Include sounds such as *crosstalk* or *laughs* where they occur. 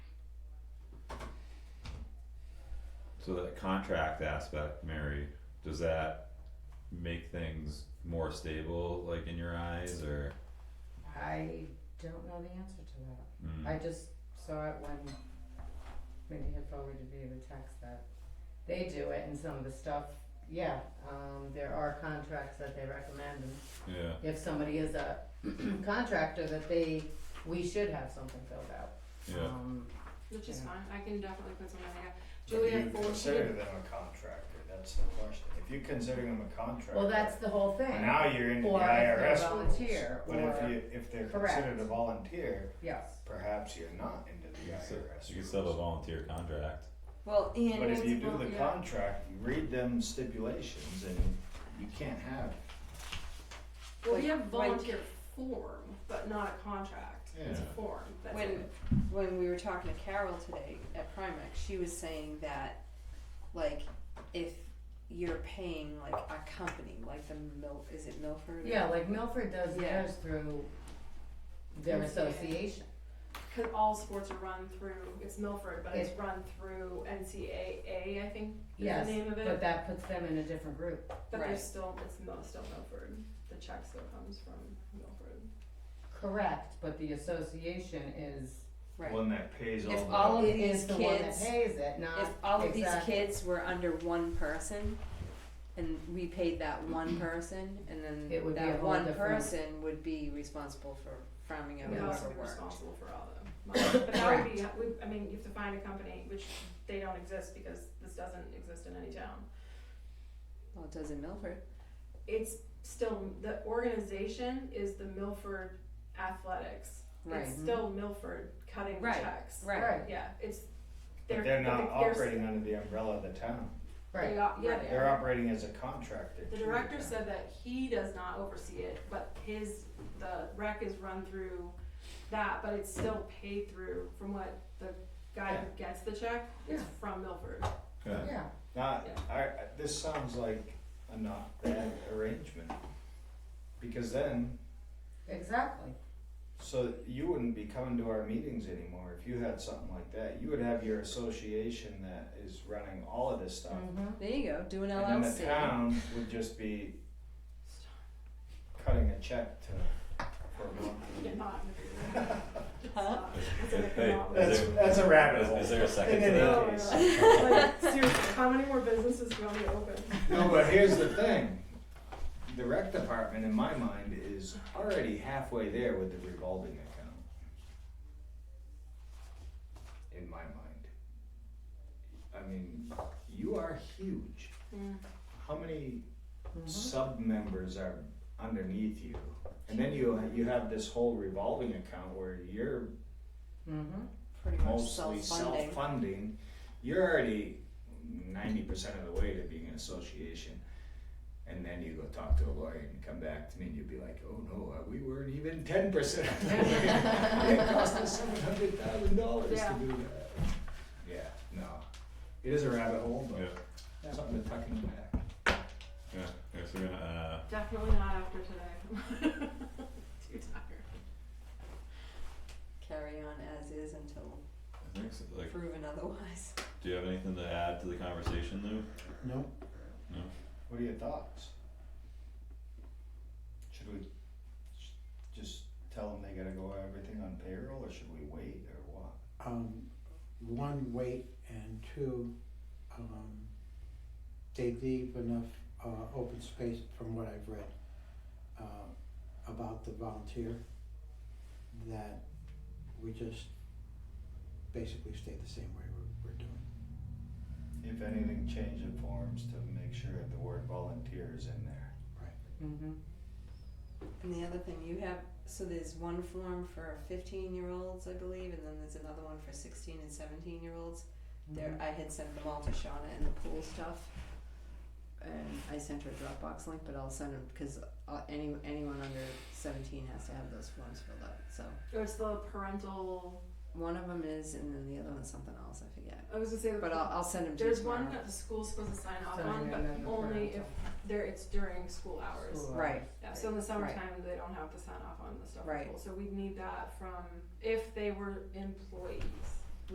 So that contract aspect, Mary, does that make things more stable, like in your eyes, or? I don't know the answer to that. Mm, I just saw it when Mindy had forwarded me the text that they do it and some of the stuff, yeah, um, there are contracts that they recommend and Yeah, if somebody is a *clears throat* contractor that they, we should have something filled out. yeah, Um, Which is Yeah. fine, I can definitely put something like that. If Julia you consider forwarded, them a contractor, that's the question. If you consider them a contractor. well, that's the whole thing. Now you're into the Or if they're IRS rules. volunteer, But or- if you, if they're Correct. considered a volunteer, Yes. perhaps you're not into the you IRS could rules. still, you could still have a volunteer contract, Well, and But if it's you do about- the yeah. contract, you read them stipulations and you can't have, well, we have like- volunteer form, but not a contract, it's a Yeah. form, that's When- it. when we were talking to Carol today at Primex, she was saying that, like, if you're paying like a company, like the Mil, is it Milford? Yeah, like Milford does Yeah. theirs through their Yeah. association. Cause all sports are run through, it's Milford, but it's run through NCAA, I think, is the Yes, name of But it, that puts them in a different group. but they're Right. still, it's mo- still Milford, the check still comes from Milford. Correct, but the association is, Right. one that pays all the. If all of it these is the one that kids, pays it, not, if all of these Exactly. kids were under one person, and we paid that *clears throat* one person, and It would then be a that whole one different- person would be responsible for farming out We whatever also be worked. responsible for all *coughs* of them. But that would be, we- I mean, you have to find a company, which they don't exist because this doesn't exist in any town. Well, it does in Milford. It's still, the organization is the Milford Athletics. Right. mhm. It's still Milford cutting the Right, checks. right, Yeah, it's, they're, But they're not but they're- operating under the umbrella of the town. They right, are, yeah, they They're are. operating as a contractor. The to director town. said that he does not oversee it, but his, the rec is run through that, but it's still paid through from what the guy who gets the check is Yeah. from Milford. yeah, yeah. Not, Yeah. I, I- this sounds like a not bad arrangement. Because then, Exactly. so you wouldn't be coming to our meetings anymore if you had something like that. You would have your association that is running all of this stuff. Mhm. There you go, do an LLC. And then the town would just be cutting a check to, for a month. You're not gonna do that. *laughs* Huh? It's an Hey, economic- Is That's, there- that's a rabbit is- hole. is there a second In to any that? case. Like, seriously, how many more businesses do you want me to open? No, but here's the thing. The rec department, in my mind, is already halfway there with the revolving account. In my mind. I mean, you are huge. How many sub-members are underneath you? And then you, you have this whole revolving account where you're Mhm. Pretty much mostly self-funding. self-funding, you're already ninety percent of the way to being an association. And then you go talk to a lawyer and come back to me and you'll be like, oh no, uh, we weren't even ten percent of the way. It cost us seven hundred thousand dollars to Yeah. do that. Yeah, no, it is a rabbit hole, yeah, but something to tuck in the back. yeah, yeah, so we're gonna, uh, Definitely not after today. *laughs* Too tired. Carry on as is until uh, I think, so, like, proven otherwise. do you have anything to add to the conversation, Lou? No. No. What are your thoughts? Should we sh- just tell them they gotta go everything on payroll or should we wait or what? um, one, wait, and two, um, they leave enough, uh, open space from what I've read, uh, about the volunteer that we just basically stay the same way we're, we're doing. If anything, change the forms to make sure that the word volunteer is in there. Mhm. And the other thing you have, so there's one form for fifteen year olds, I believe, and then there's another one for sixteen and seventeen year olds. There, I had sent them all to Shauna and the pool stuff. And I sent her a Dropbox link, but I'll send them, cause uh, any, anyone under seventeen has to have those forms filled out, so. Or it's the parental, One of them is, and then the other one's something else, I forget, I was gonna say, the- but I'll, I'll send them to you there's tomorrow. one that the school's supposed to sign off So on, you're not but the only if parental. there, it's during school hours. School Right. hours. Yeah, so in the summertime, they don't have to sign off on the stuff at Right. school, so we'd need that from, if they were employees.